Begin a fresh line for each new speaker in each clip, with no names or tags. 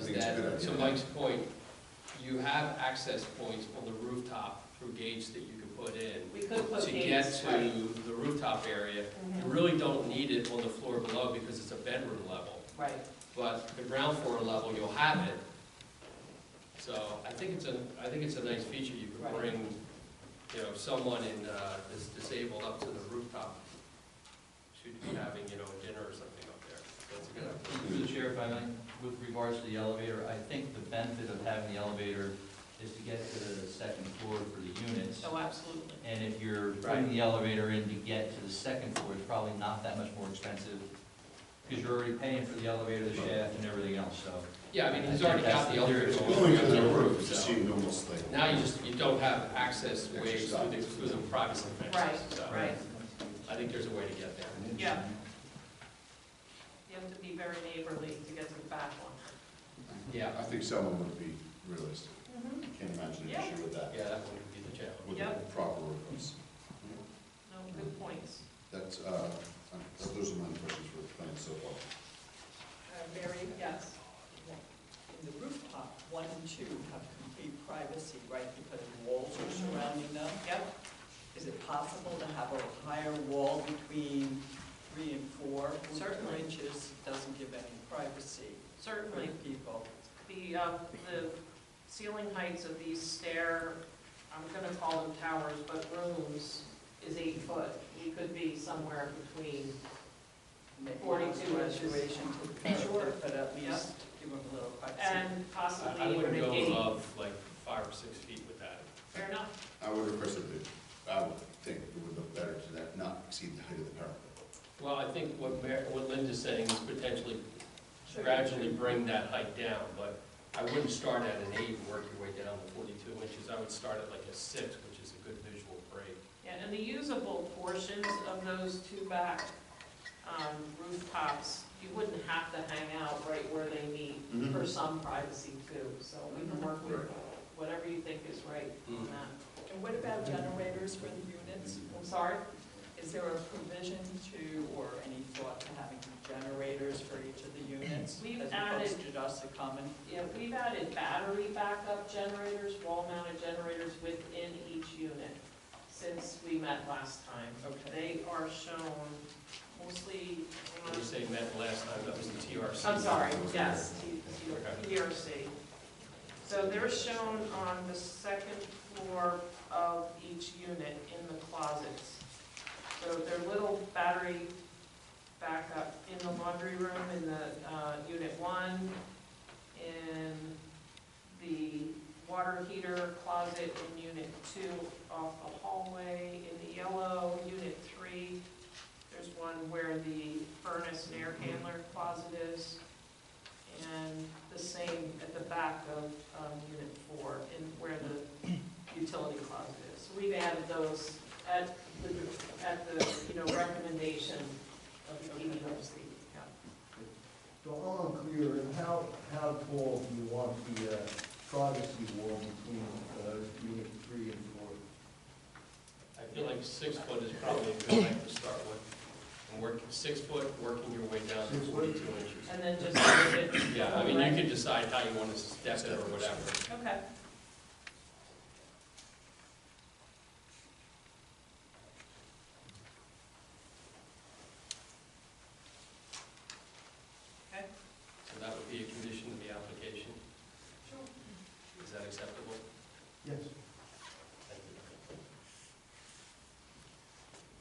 think it's a good
that,
idea.
to Mike's point, you have access points on the rooftop through gates that you can put in
We could put
to get
gates, right.
to the rooftop area. You
Mhm.
really don't need it on the floor below because it's a bedroom level.
Right,
But the ground floor level, you'll have it. So I think it's a, I think it's a nice feature, you
Right.
can bring, you know, someone in, uh, that's disabled up to the rooftop. Should be having, you know, a dinner or something up there, that's a good idea.
Through the chair, if I may, with regards to the elevator, I think the benefit of having the elevator is to get to the second floor for the units.
oh, absolutely.
And if you're putting the elevator in to get to the second floor, it's probably not that much more expensive, because you're already paying for the elevator, the shaft, and everything else, so.
Yeah, I mean, he's already got the elevator.
It's
It's going to the
so
roof, it just seemed almost like.
Now you just, you don't have access ways through the, through the privacy fences,
Right,
so
right.
I think there's a way to get there.
Yeah. You have to be very neighborly to get to the back one.
Yeah,
I think someone would be realistic.
Mm-hmm.
I Can't imagine an
Yeah.
issue with that,
uh, yeah, that would be the challenge.
with the
Yep.
proper rooms.
No, good points.
That's, uh, uh, those are my questions for the plan so far.
Mary, Uh, yes.
In the rooftop, one and two have complete privacy, right, because walls are surrounding them.
Yep,
Is it possible to have a higher wall between three and four?
Certainly.
Four inches doesn't give any privacy for
certainly.
the people.
The, uh, the ceiling heights of these stair, I'm gonna call them towers, but rooms is eight foot. We could be somewhere between,
Maybe
42 inches.
Graduation to the curb,
Sure.
but at least give them a little privacy.
and
I I
possibly even
wouldn't
a
go uh,
gate.
above like five or six feet with that.
Fair enough,
I would request that, they- I would think it would look better to that, not exceed the height of the parapet.
Well, I think what Mar, what Linda's saying is potentially gradually bring that height down, but I wouldn't start at an eight and work your way down to forty-two inches. I would start at like a six, which is a good visual break.
yeah, and the usable portions of those two back um, rooftops, you wouldn't have to hang out right where they meet
Mhm.
for some privacy too, so we can work with
Right.
whatever you think is right on that.
And what about generators for the units?
I'm sorry?
Is there a provision to, or any thought to having generators for each of the units?
We've
As opposed to just a common
Yeah, we've added battery backup generators, wall-mounted generators within each unit since we met last time.
Okay.
They are shown mostly
When you
on,
say met last time, that was the TRC.
Uh, I'm sorry, yes, T- T- ERC. So they're shown on the second floor of each unit in the closets. So they're little battery backup in the laundry room, in the, uh, unit one, in the water heater closet in unit two off the hallway, in the yellow, unit three. There's one where the furnace and air handler closet is. And the same at the back of, um, unit four, in where the utility closet is. So we've added those at the, at the, you know, recommendation of the E DEOC.
So I'm unclear, and how, how tall do you want the uh, privacy wall between uh, unit three and four?
I feel like six foot is probably a good height to start with. And work, six foot, working your way down to
Six foot?
forty-two inches.
And then just leave it
Yeah, I mean, you can decide how you want to step it or whatever.
Okay. Okay,
So that would be a condition of the application.
sure.
Is that acceptable?
Yes.
Thank you.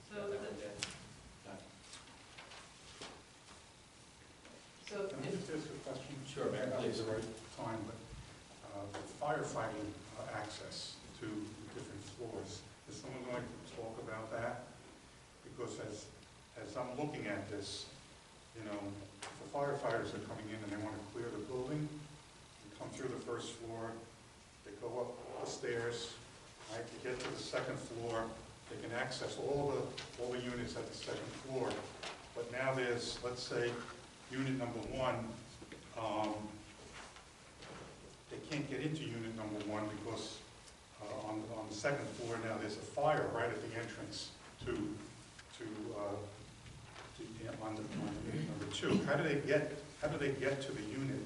So,
Got that one
the-
down?
so
Can I
if,
just ask a question?
Sure, Mayor,
That
please.
was the right time, but uh, firefighting uh, access to different floors, is someone going to talk about that? Because as, as I'm looking at this, you know, if the firefighters are coming in and they want to clear the building, they come through the first floor, they go up the stairs, right, to get to the second floor, they can access all the, all the units at the second floor. But now there's, let's say, unit number one, um, they can't get into unit number one because uh, on, on the second floor now, there's a fire right at the entrance to, to, uh, to, yeah, on the, on unit Uh, number two. How do they get, how do they get to the unit